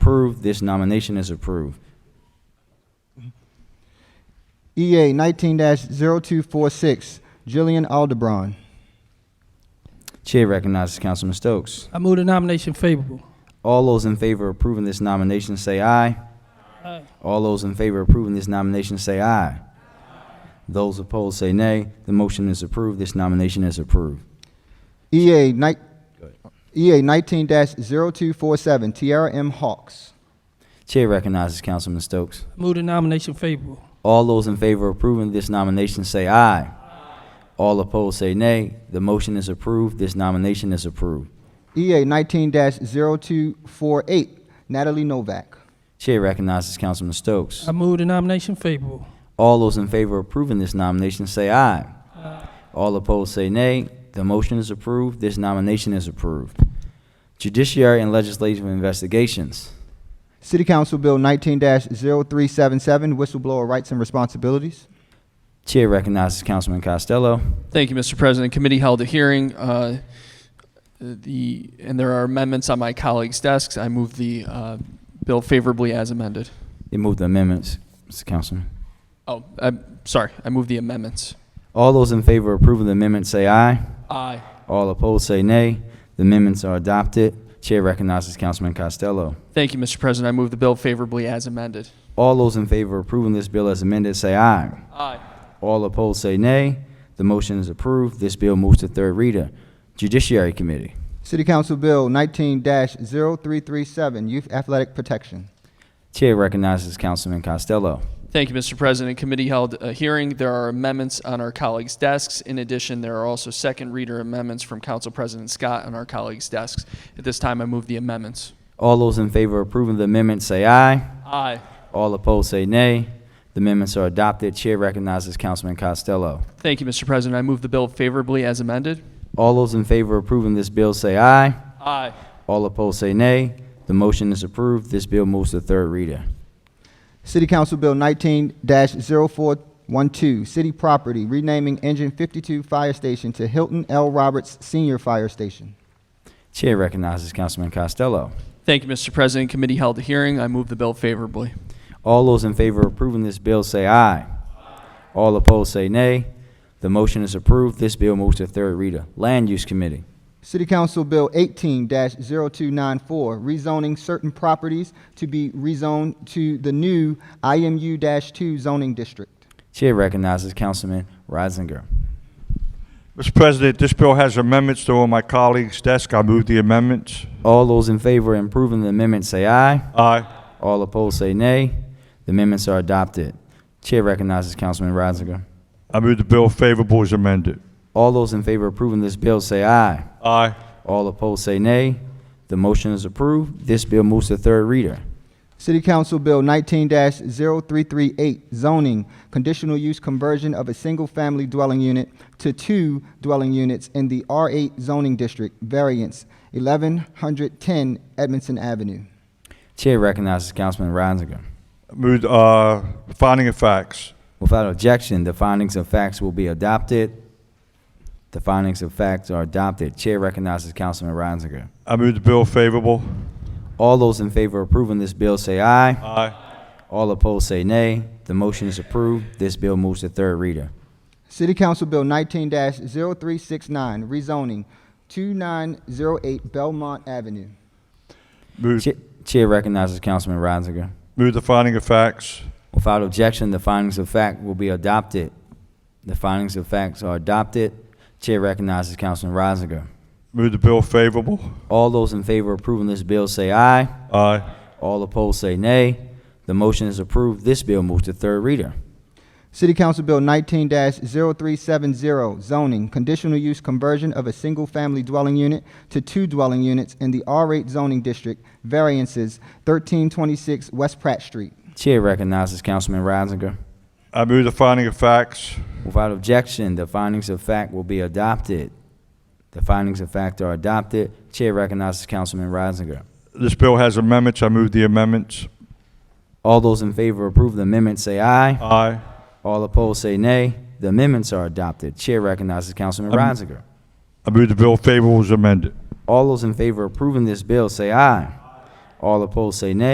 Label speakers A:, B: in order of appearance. A: Approved. This nomination is approved.
B: EA 19 0246, Jillian Alderbron.
A: Chair recognizes Councilman Stokes.
C: I move the nomination favorable.
A: All those in favor of approving this nomination say aye.
C: Aye.
A: All those in favor of approving this nomination say aye. Those opposed say nay. The motion is approved. This nomination is approved.
B: EA E 19 0247, Tierra M. Hawks.
A: Chair recognizes Councilman Stokes.
C: I move the nomination favorable.
A: All those in favor of approving this nomination say aye. All opposed say nay. The motion is approved. This nomination is approved.
B: EA 19 0248, Natalie Novak.
A: Chair recognizes Councilman Stokes.
C: I move the nomination favorable.
A: All those in favor of approving this nomination say aye. All opposed say nay. The motion is approved. This nomination is approved. Judiciary and Legislative Investigations.
B: City Council Bill 19 0377, Whistleblower Rights and Responsibilities.
A: Chair recognizes Councilman Costello.
D: Thank you, Mr. President. Committee held a hearing. uh, The, and there are amendments on my colleagues' desks. I move the uh, bill favorably as amended.
A: You move the amendments, Mr. Councilman.
D: Oh, I'm sorry, I move the amendments.
A: All those in favor of approving the amendment say aye.
D: Aye.
A: All opposed say nay. The amendments are adopted. Chair recognizes Councilman Costello.
D: Thank you, Mr. President. I move the bill favorably as amended.
A: All those in favor of approving this bill as amended say aye.
D: Aye.
A: All opposed say nay. The motion is approved. This bill moves to third reader. Judiciary Committee.
B: City Council Bill 19 0337, Youth Athletic Protection.
A: Chair recognizes Councilman Costello.
D: Thank you, Mr. President. Committee held a hearing. There are amendments on our colleagues' desks. In addition, there are also second reader amendments from Council President Scott on our colleagues' desks. At this time, I move the amendments.
A: All those in favor of approving the amendment say aye.
D: Aye.
A: All opposed say nay. The amendments are adopted. Chair recognizes Councilman Costello.
D: Thank you, Mr. President. I move the bill favorably as amended.
A: All those in favor of approving this bill say aye.
D: Aye.
A: All opposed say nay. The motion is approved. This bill moves to third reader.
B: City Council Bill 19 0412, City Property, renaming Engine 52 Fire Station to Hilton L. Roberts Senior Fire Station.
A: Chair recognizes Councilman Costello.
D: Thank you, Mr. President. Committee held a hearing. I move the bill favorably.
A: All those in favor of approving this bill say aye. All opposed say nay. The motion is approved. This bill moves to third reader. Land Use Committee.
B: City Council Bill 18 0294, rezoning certain properties to be rezoned to the new IMU 2 zoning district.
A: Chair recognizes Councilman Reisinger.
E: Mr. President, this bill has amendments, though on my colleague's desk, I move the amendments.
A: All those in favor of approving the amendment say aye.
E: Aye.
A: All opposed say nay. The amendments are adopted. Chair recognizes Councilman Reisinger.
E: I move the bill favorable as amended.
A: All those in favor of approving this bill say aye.
E: Aye.
A: All opposed say nay. The motion is approved. This bill moves to third reader.
B: City Council Bill 19 0338, zoning, conditional use conversion of a single family dwelling unit to two dwelling units in the R8 zoning district, variance 1110 Edmondson Avenue.
A: Chair recognizes Councilman Reisinger.
E: Move, uh, finding of facts.
A: Without objection, the findings of facts will be adopted. The findings of facts are adopted. Chair recognizes Councilman Reisinger.
E: I move the bill favorable.
A: All those in favor of approving this bill say aye.
E: Aye.
A: All opposed say nay. The motion is approved. This bill moves to third reader.
B: City Council Bill 19 0369, rezoning 2908 Belmont Avenue.
E: Move,
A: Cha- Chair recognizes Councilman Reisinger.
E: move the finding of facts.
A: Without objection, the findings of fact will be adopted. The findings of facts are adopted. Chair recognizes Councilman Reisinger.
E: Move the bill favorable.
A: All those in favor of approving this bill say aye.
E: Aye.
A: All opposed say nay. The motion is approved. This bill moves to third reader.
B: City Council Bill 19 0370, zoning, conditional use conversion of a single family dwelling unit to two dwelling units in the R8 zoning district, variances 1326 West Pratt Street.
A: Chair recognizes Councilman Reisinger.
E: I move the finding of facts.
A: Without objection, the findings of fact will be adopted. The findings of fact are adopted. Chair recognizes Councilman Reisinger.
E: This bill has amendments, I move the amendments.
A: All those in favor of approve the amendment say aye.
E: Aye.
A: All opposed say nay. The amendments are adopted. Chair recognizes Councilman
E: Um,
A: Reisinger.
E: I move the bill favorable as amended.
A: All those in favor of approving this bill say aye. All opposed, say nay.